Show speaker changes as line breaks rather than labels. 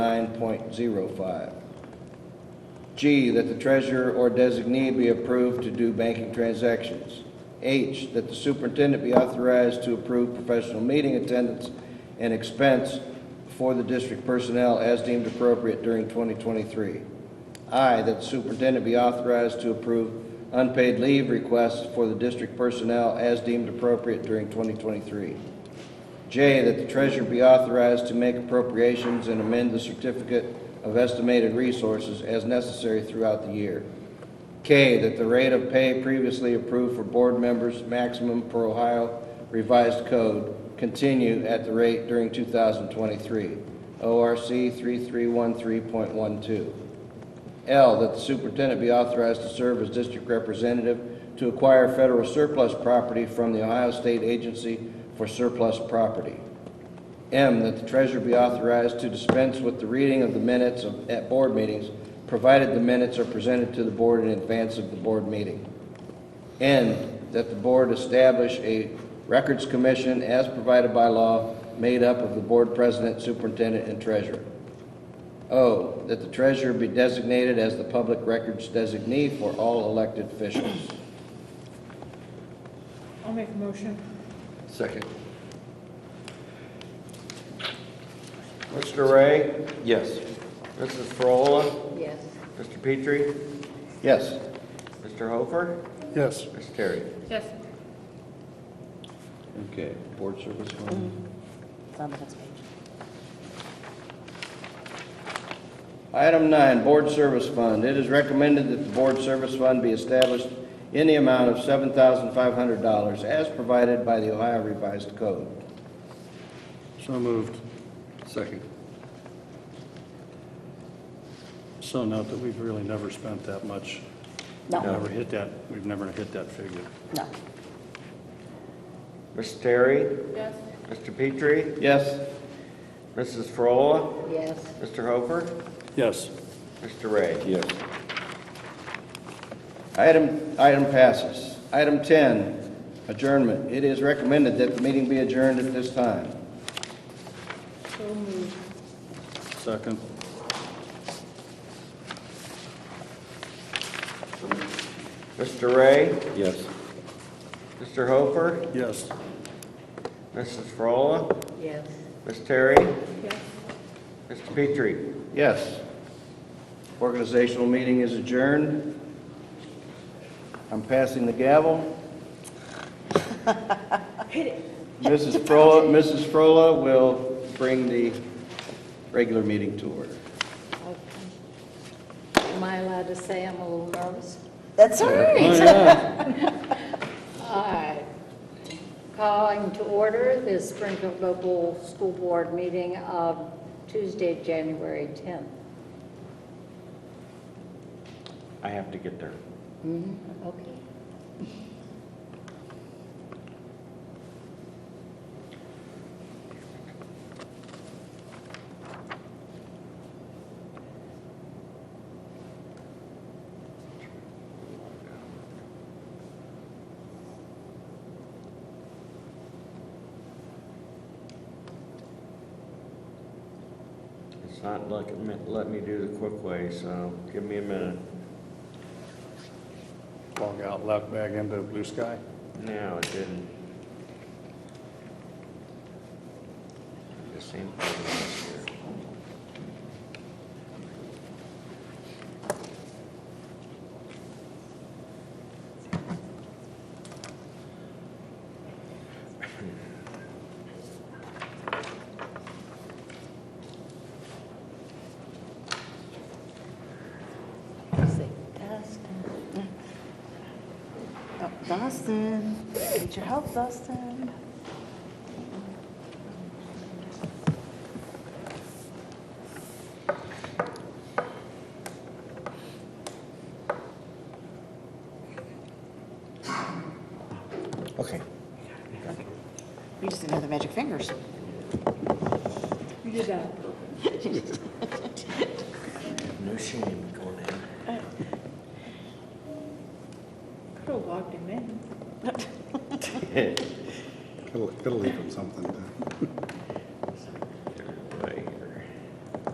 9.05. G, that the treasurer or designee be approved to do banking transactions. H, that the superintendent be authorized to approve professional meeting attendance and expense for the district personnel as deemed appropriate during 2023. I, that the superintendent be authorized to approve unpaid leave requests for the district personnel as deemed appropriate during 2023. J, that the treasurer be authorized to make appropriations and amend the certificate of estimated resources as necessary throughout the year. K, that the rate of pay previously approved for board members maximum per Ohio revised code continue at the rate during 2023, ORC 3313.12. L, that the superintendent be authorized to serve as district representative to acquire federal surplus property from the Ohio State Agency for Surplus Property. M, that the treasurer be authorized to dispense with the reading of the minutes of- at board meetings, provided the minutes are presented to the board in advance of the board meeting. N, that the board establish a records commission as provided by law, made up of the board president, superintendent, and treasurer. O, Oh, that the treasurer be designated as the public records designee for all elected officials.
I'll make a motion.
Second.
Mr. Ray?
Yes.
Mrs. Frola?
Yes.
Mr. Petrie?
Yes.
Mr. Hofer?
Yes.
Ms. Terry?
Yes.
Okay, board service one.
It's on the next page.
Item nine, board service fund. It is recommended that the board service fund be established in the amount of $7,500 as provided by the Ohio Revised Code.
So moved.
Second.
So note that we've really never spent that much. We've
No,
Never hit that, we've never hit that figure.
no.
Ms. Terry?
Yes.
Mr. Petrie?
Yes?
Mrs. Frola?
Yes.
Mr. Hofer?
Yes,
Mr. Ray?
Yes.
Item, item passes. Item 10, adjournment. It is recommended that the meeting be adjourned at this time.
So moved.
second.
Mr. Ray?
Yes.
Mr. Hofer?
Yes.
Mrs. Frola?
Yes.
Ms. Terry?
Yes.
Mr. Petrie?
Yes. Organizational meeting is adjourned. I'm passing the gavel. Mrs. Frola, Mrs. Frola will bring the regular meeting to order.
Am I allowed to say I'm a little nervous?
That's all
Oh,
right.
All right. Calling to order this Springfield Local School Board meeting of Tuesday, January 10th.
I have to get there.
Okay.
It's not letting me, let me do the quick way, so give me a minute.
Log out, log back into blue sky.
No, it didn't. The same problem last year.
Say, Dustin. Oh, Dustin, need your help, Dustin.
Okay.
We just didn't have the magic fingers.
You did that.
No shame going in.
Could have logged him in.
It'll, it'll leave him something to.